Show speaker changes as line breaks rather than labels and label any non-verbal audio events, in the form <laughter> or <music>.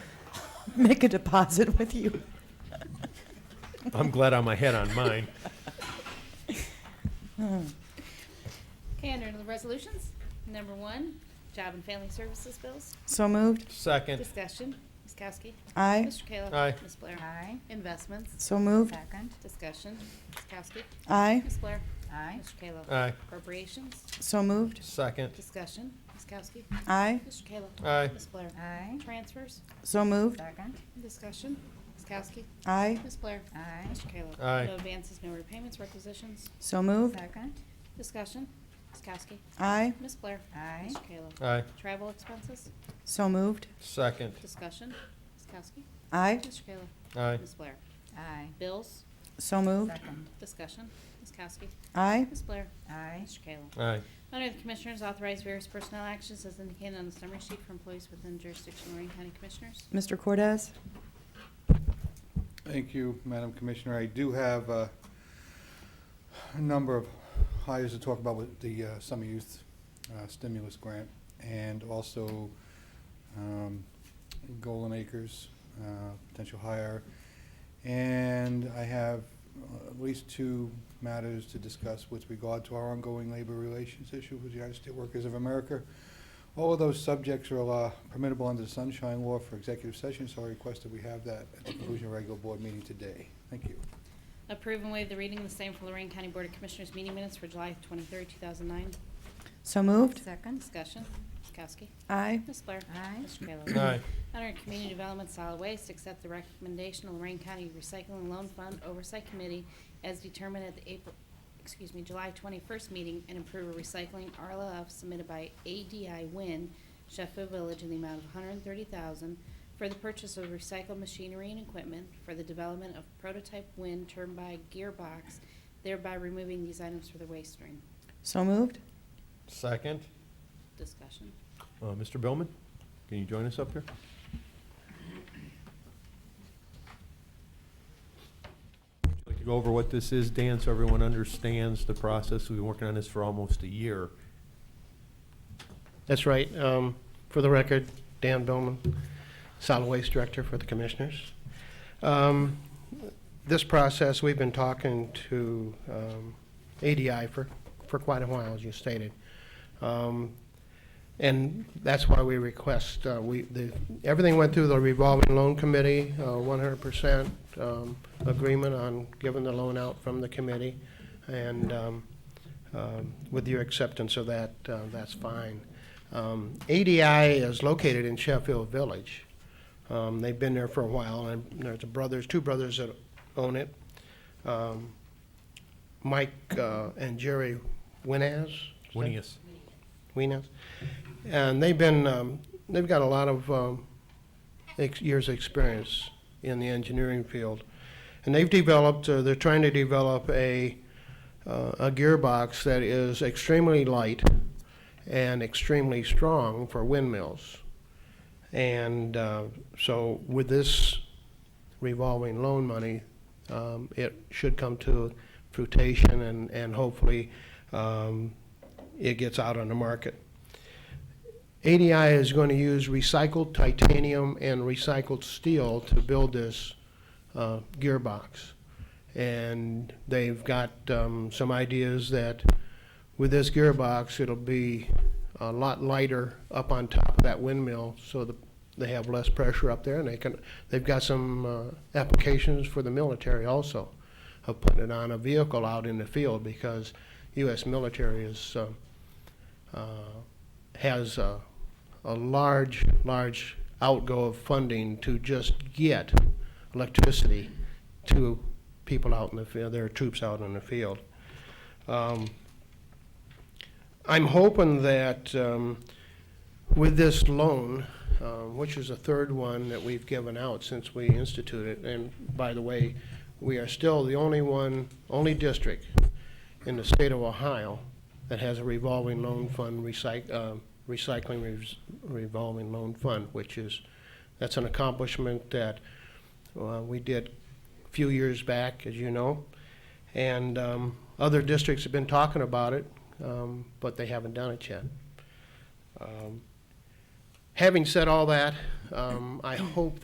<laughs> make a deposit with you.
<laughs> I'm glad I'm ahead on mine.
Okay, under the resolutions, number one, Job and Family Services bills.
<laughs> So moved.
Second,
Discussion, Ms. Kowski.
Aye.
Mr. Kayla.
Aye.
Ms. Blair.
Aye.
Investments,
So moved.
Second.
discussion, Ms. Kowski.
Aye.
Ms. Blair.
Aye.
Mr. Kayla.
aye,
Appropriations,
So moved.
second,
discussion, Ms. Kowski.
Aye.
Mr. Kayla.
Aye.
Ms. Blair.
Aye.
Transfers,
So moved.
Second.
discussion, Ms. Kowski.
Aye.
Ms. Blair.
Aye.
Mr. Kayla.
Aye.
No advances, no repayments, requisitions,
So moved.
Second.
discussion, Ms. Kowski.
Aye.
Ms. Blair.
Aye.
Mr. Kayla.
aye,
Travel expenses,
So moved.
second,
discussion, Ms. Kowski.
Aye.
Mr. Kayla.
aye,
Ms. Blair.
Aye.
Bills,
So moved.
Second.
discussion, Ms. Kowski.
Aye.
Ms. Blair.
Aye.
Mr. Kayla.
aye,
Under the Commissioners, authorize various personnel actions as indicated on the summary sheet for employees within jurisdiction of Lorraine County Commissioners.
Mr. Cortez?
Thank you, Madam Commissioner. I do have uh, a number of hires to talk about with the uh, summer youth uh, stimulus grant and also um, Golden Acres uh, potential hire. And I have uh, at least two matters to discuss with regard to our ongoing labor relations issue with the United States Workers of America. All of those subjects are uh, permissible under the Sunshine Law for executive session, so I request that we have that at the conclusion of our regular board meeting today. Thank you.
Approve and waive the reading of the same for Lorraine County Board of Commissioners meeting minutes for July 23, 2009.
So moved.
Second.
Discussion, Ms. Kowski.
Aye.
Ms. Blair.
Aye.
Mr. Kayla.
aye,
Under Community Development Solid Waste, accept the recommendation of Lorraine County Recycling Loan Fund Oversight Committee as determined at the April, excuse me, July 21st meeting and approve a recycling RLF submitted by ADI Win Sheffield Village in the amount of $130,000 for the purchase of recycled machinery and equipment for the development of prototype wind turbine gearbox, thereby removing these items for the waste stream.
So moved.
second.
Discussion.
Uh, Mr. Billman, can you join us up here? Would you Like to go over what this is, Dan, so everyone understands the process. We've been working on this for almost a year.
That's right. Um, For the record, Dan Billman, Solid Waste Director for the Commissioners. Um, This process, we've been talking to um, ADI for, for quite a while, as you stated. Um, And that's why we request, uh, we, the, everything went through the revolving loan committee, uh, 100% um, agreement on giving the loan out from the committee. And um, um, with your acceptance of that, uh, that's fine. Um, ADI is located in Sheffield Village. Um, They've been there for a while, and there's a brothers, two brothers that own it. Um, Mike uh, and Jerry Winaz? is that-
Winning us.
Winas. And they've been, um, they've got a lot of um, ex- years' experience in the engineering field. And they've developed, uh, they're trying to develop a, uh, a gearbox that is extremely light and extremely strong for windmills. And uh, so with this revolving loan money, um, it should come to fruition and, and hopefully um, it gets out on the market. ADI is going to use recycled titanium and recycled steel to build this uh, gearbox. And they've got um, some ideas that with this gearbox, it'll be a lot lighter up on top of that windmill, so the- they have less pressure up there, and they can, they've got some uh, applications for the military also, of putting it on a vehicle out in the field, because U.S. military is, um, uh, has a, a large, large outgo of funding to just get electricity to people out in the field, their troops out in the field. Um, I'm hoping that um, with this loan, uh, which is the third one that we've given out since we instituted, and by the way, we are still the only one, only district in the state of Ohio that has a revolving loan fund, recyc- uh, recycling res- revolving loan fund, which is, that's an accomplishment that uh, we did a few years back, as you know. And um, other districts have been talking about it, um, but they haven't done it yet. Um, Having said all that, um, I hope